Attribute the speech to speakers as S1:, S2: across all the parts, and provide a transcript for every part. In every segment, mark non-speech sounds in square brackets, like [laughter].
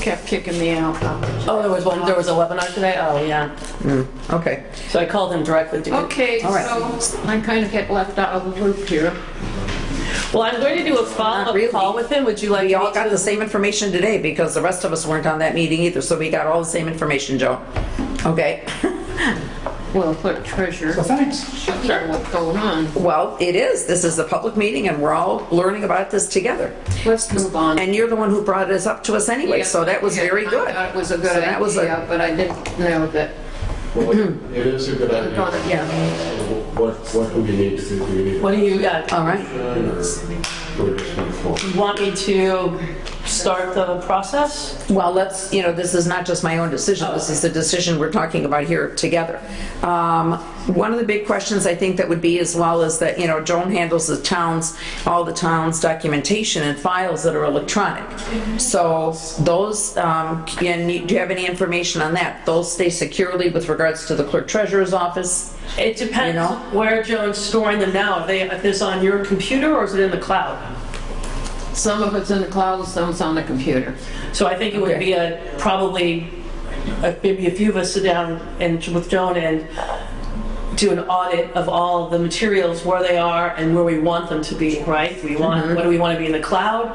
S1: kept kicking me out.
S2: Oh, there was one, there was a webinar today? Oh, yeah.
S3: Okay.
S2: So I called him directly to get
S1: Okay, so
S3: All right.
S1: I kind of get left out of the loop here.
S2: Well, I'm going to do a
S3: Not
S2: follow-up
S3: really.
S2: call with him. Would you like
S3: We all
S2: me
S3: got the same information today because the rest of us weren't on that meeting either, so we got all the same information, Joe. Okay?
S1: We'll put treasure.
S4: Well, thanks.
S1: Show what's going on.
S3: Well, it is. This is a public meeting and we're all learning about this together.
S1: Let's move on.
S3: And you're the one who brought this up to us anyway, so that was
S1: Yeah,
S3: very
S1: I
S3: good.
S1: thought It was a
S3: So
S1: good
S3: that was a-
S1: idea, but I didn't know that,
S5: Well, It is a good idea.
S1: yeah.
S5: What, what do we need to do? Do we need
S2: to? What do you, uh,
S3: All right.
S5: or we're just gonna form?
S2: want me to start the process?
S3: Well, let's, you know, this is not just my own decision, this is the decision we're talking about here together. Um, One of the big questions I think that would be as well is that, you know, Joan handles the towns, all the towns' documentation and files that are electronic. So those, um, can you- do you have any information on that? Those stay securely with regards to the clerk treasurer's office?
S2: It depends
S3: know?
S2: where Joan's storing them now. Are they, is this on your computer or is it in the cloud?
S1: Some of it's in the cloud, some's on the computer.
S2: So I think it would
S3: Okay.
S2: be a, probably, uh, maybe a few of us sit down and with Joan and do an audit of all the materials, where they are and where we want them to be, right? We want,
S3: Mm-hmm.
S2: what do we want to be in the cloud?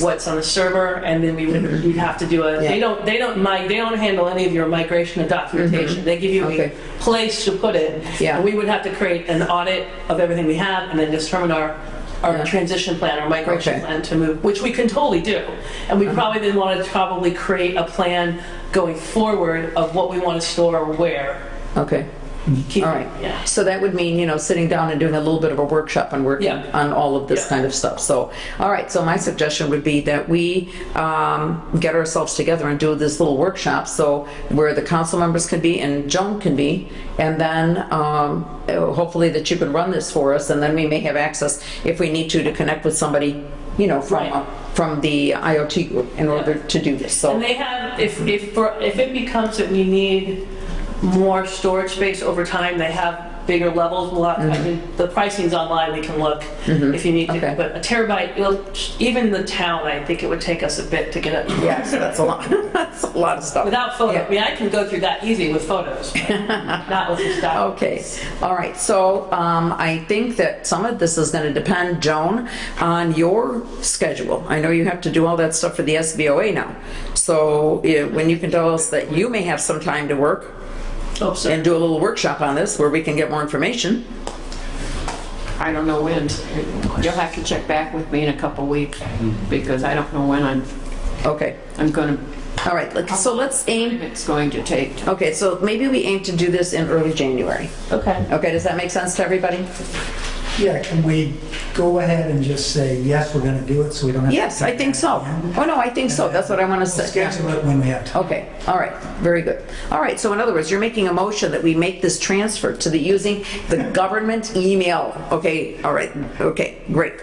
S2: What's on the server? And then we would, we'd have to do a, they
S3: Mm-hmm. Yeah.
S2: don't, they don't, mi- they don't handle any of your migration and documentation. They give you a
S3: Mm-hmm. Okay.
S2: place to put it.
S3: Yeah.
S2: And we would have to create an audit of everything we have and then determine our, our
S3: Yeah.
S2: transition plan, our migration
S3: Okay. Uh-huh.
S2: plan to move, which we can totally do. And we probably then want to probably create a plan going forward of what we want to store where.
S3: Okay,
S2: Keep-
S3: all right.
S2: Yeah.
S3: So that would mean, you know, sitting down and doing a little bit of a workshop and working
S2: Yeah.
S3: on all of this
S2: Yeah.
S3: kind of stuff. So, all right, so my suggestion would be that we um, get ourselves together and do this little workshop, so where the council members can be and Joan can be, and then um, uh, hopefully that you could run this for us, and then we may have access, if we need to, to connect with somebody, you know, from,
S2: Right.
S3: from the IoT group in order to do this, so.
S2: And they have, if, if, for- if it becomes that we need more storage space over time, they have bigger levels. We'll have, I mean, the pricing's online, we can look if you need to.
S3: Mm-hmm. Okay.
S2: But a terabyte, it'll- even the town, I think it would take us a bit to get it.
S3: Yeah, so that's a lot, [laughs] that's a lot of stuff.
S2: Without photo,
S3: Yeah.
S2: I mean, I can go through that easy with photos, but
S3: [laughs]
S2: not with the doc.
S3: Okay, all right, so um, I think that some of this is going to depend, Joan, on your schedule. I know you have to do all that stuff for the SBOA now, so eh, when you can tell us that you may have some time to work
S2: Oh, sorry.
S3: and do a little workshop on this where we can get more information.
S1: I don't know when. You'll have to check back with me in a couple weeks because I don't know when I'm,
S3: Okay,
S1: I'm gonna,
S3: all right, let- so let's aim,
S1: it's going to take.
S3: okay, so maybe we aim to do this in early January.
S2: Okay.
S3: Okay, does that make sense to everybody?
S4: Yeah, can we go ahead and just say, yes, we're going to do it, so we don't have to...
S3: Yes, I think so. Oh, no, I think so, that's what I want to say. Yeah.
S4: Schedule it when we have time.
S3: Okay, all right, very good. All right, so in other words, you're making a motion that we make this transfer to the, using the government email. Okay, all right, okay, great.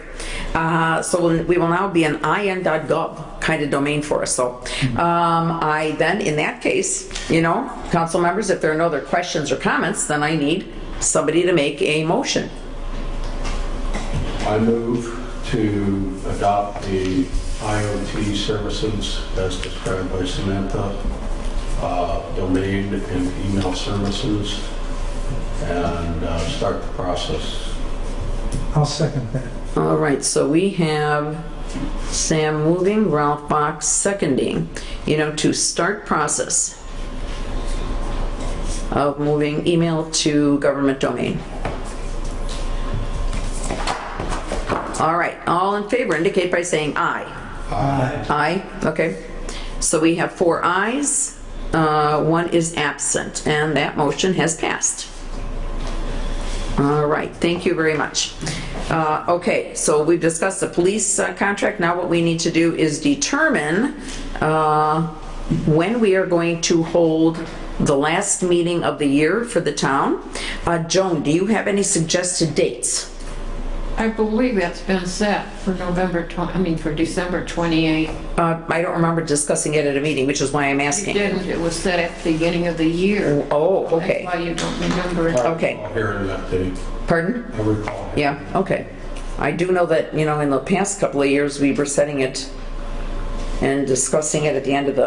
S3: Uh, So we'll- we will now be an IN.gov kind of domain for us, so. um, I then, in that case, you know, council members, if there are no other questions or comments, then I need somebody to make a motion.
S5: I move to adopt the IoT services as described by Samantha, uh, domain and email services, and uh, start the process.
S4: I'll second that.
S3: All right, so we have Sam moving, Ralph Box seconding, you know, to start process of moving email to government domain. All right, all in favor indicate by saying aye. Aye, okay. So we have four ayes, uh, one is absent, and that motion has passed. All right, thank you very much. Uh, Okay, so we've discussed the police uh, contract, now what we need to do is determine uh, when we are going to hold the last meeting of the year for the town. Uh, Joan, do you have any suggested dates?
S1: I believe that's been set for November 20, I mean, for December 28.
S3: Uh, I don't remember discussing it at a meeting, which is why I'm
S1: It
S3: asking.
S1: didn't, it was set at the beginning of the year.
S3: Oh,
S1: That's
S3: okay,
S1: why you don't remember it.
S3: Okay.
S5: I'll Hear an update.
S3: pardon?
S5: I recall.
S3: Yeah, okay. I do know that, you know, in the past couple of years, we were setting it and discussing it at the end of the